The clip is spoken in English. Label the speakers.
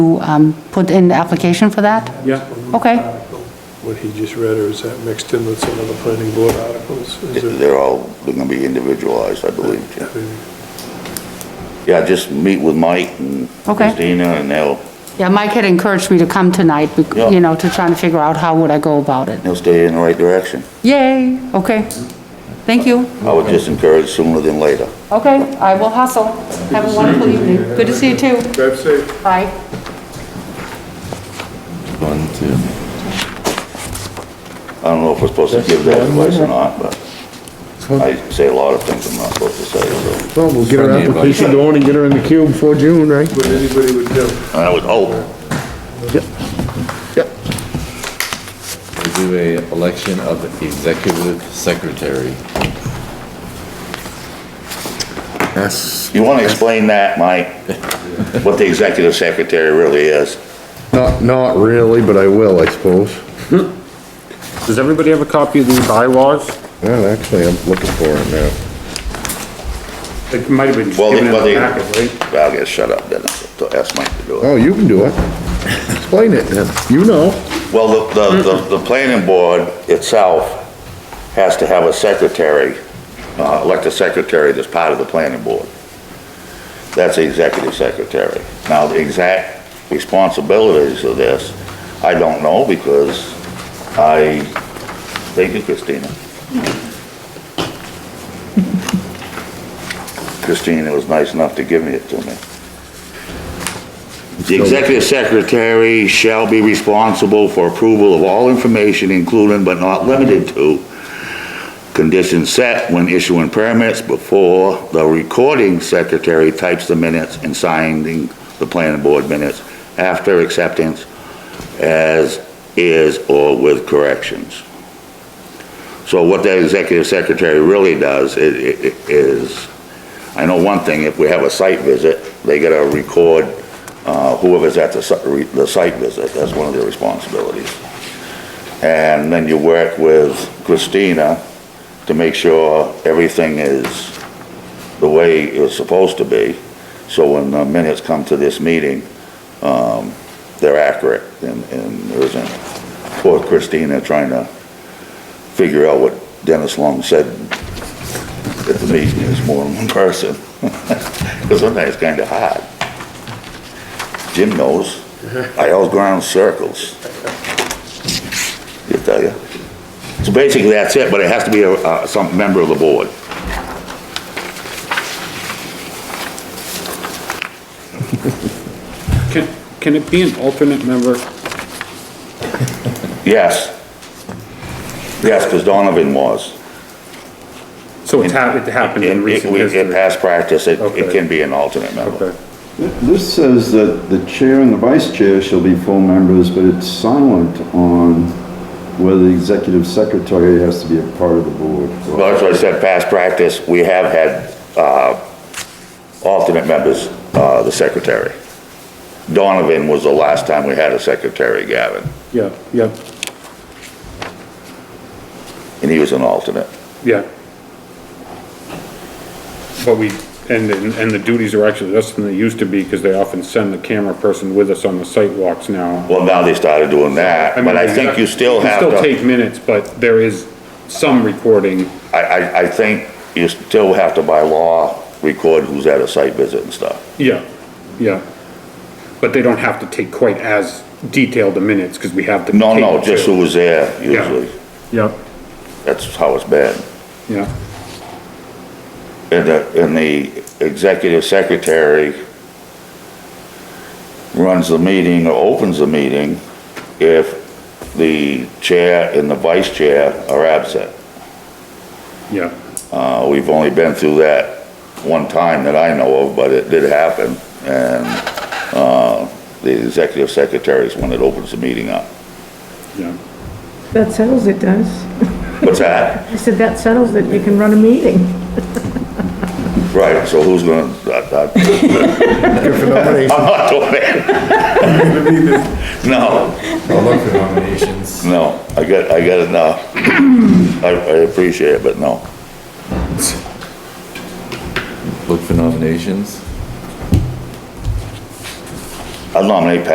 Speaker 1: um, put in the application for that?
Speaker 2: Yeah.
Speaker 1: Okay,
Speaker 2: What he just read, or is that mixed in with some of the planning board articles? Is it-
Speaker 3: They're all, they're gonna be individualized, I believe, yeah.
Speaker 2: Maybe.
Speaker 3: Yeah, just meet with Mike and
Speaker 1: Okay.
Speaker 3: Christina, and they'll,
Speaker 1: yeah, Mike had encouraged me to come tonight, bec-
Speaker 3: Yeah.
Speaker 1: you know, to try and figure out how would I go about it.
Speaker 3: they'll stay in the right direction.
Speaker 1: Yay, okay, thank you.
Speaker 3: I would just encourage sooner than later.
Speaker 1: Okay, I will hustle. Have a wonderful evening. Good to see you too.
Speaker 2: Drive safe.
Speaker 1: Bye.
Speaker 4: One, two.
Speaker 3: I don't know if we're supposed to give that advice or not, but I say a lot of things I'm not supposed to say, so
Speaker 5: Well, we'll get her
Speaker 4: Friendly advice.
Speaker 5: application going and get her in the queue before June, right?
Speaker 2: What anybody would do.
Speaker 3: I would hope.
Speaker 4: We do a election of executive secretary.
Speaker 6: That's
Speaker 3: You wanna explain that, Mike? What the executive secretary really is?
Speaker 6: not, not really, but I will, I suppose.
Speaker 5: Does everybody have a copy of the bylaws?
Speaker 6: Well, actually, I'm looking for it now.
Speaker 5: It might have been
Speaker 3: Well, they-
Speaker 5: given in
Speaker 3: well, they-
Speaker 5: the packet, right?
Speaker 3: I'll get shut up then, so ask Mike to do it.
Speaker 6: Oh, you can do it. Explain it then. You know.
Speaker 3: Well, the, the, the- the planning board itself has to have a secretary, uh, elect a secretary that's part of the planning board. That's the executive secretary. Now, the exact responsibilities of this, I don't know because I, thank you, Christina. Christina was nice enough to give me it to me. The executive secretary shall be responsible for approval of all information, including but not limited to conditions set when issuing permits before the recording secretary types the minutes and signing the planning board minutes after acceptance as is or with corrections. So what that executive secretary really does i- i- i- is, I know one thing, if we have a site visit, they gotta record uh, whoever's at the si- re- the site visit, that's one of their responsibilities. And then you work with Christina to make sure everything is the way it's supposed to be, so when the minutes come to this meeting, um, they're accurate, and and there isn't poor Christina trying to figure out what Dennis Long said at the meeting, is more than one person, because sometimes it's kind of hard. Jim knows. I always go around in circles. You tell you. So basically, that's it, but it has to be a, uh, some member of the board.
Speaker 7: Can, can it be an alternate member?
Speaker 3: Yes. Yes, because Donovan was.
Speaker 7: So it's happened, it happened in
Speaker 3: In,
Speaker 7: recent
Speaker 3: in- in
Speaker 7: history.
Speaker 3: past practice, it, it
Speaker 7: Okay.
Speaker 3: can be an alternate member.
Speaker 7: Okay.
Speaker 8: This says that the chair and the vice chair shall be full members, but it's silent on whether the executive secretary has to be a part of the board.
Speaker 3: Well, that's what I said, past practice, we have had, uh, alternate members, uh, the secretary. Donovan was the last time we had a secretary, Gavin,
Speaker 7: Yeah, yeah,
Speaker 3: and he was an alternate.
Speaker 7: yeah. But we, and, and and the duties are actually less than they used to be because they often send the camera person with us on the site walks now.
Speaker 3: Well, now they started doing that, but
Speaker 7: mean,
Speaker 3: I think you still have to.
Speaker 7: You still take minutes, but there is some recording.
Speaker 3: I, I, I think you still have to by law record who's at a site visit and stuff.
Speaker 7: Yeah, yeah. But they don't have to take quite as detailed a minutes because we have the.
Speaker 3: No, no,
Speaker 7: tape,
Speaker 3: just
Speaker 7: too.
Speaker 3: who was there usually.
Speaker 7: Yeah,
Speaker 3: That's how it's been.
Speaker 7: yeah.
Speaker 3: And the, and the executive secretary runs the meeting or opens the meeting if the chair and the vice chair are absent.
Speaker 7: Yeah,
Speaker 3: Uh, we've only been through that one time that I know of, but it did happen. And, uh, the executive secretary is one that opens the meeting up.
Speaker 7: yeah.
Speaker 9: That settles it, does.
Speaker 3: What's that?
Speaker 9: I said, that settles it, you can run a meeting.
Speaker 3: Right, so who's gonna, I- I-
Speaker 5: Good for nomination.
Speaker 3: I'm not doing it. No,
Speaker 4: I'll look for nominations.
Speaker 3: no, I got, I got enough. I, I appreciate it, but no.
Speaker 4: Look for nominations.
Speaker 3: I'll nominate Pat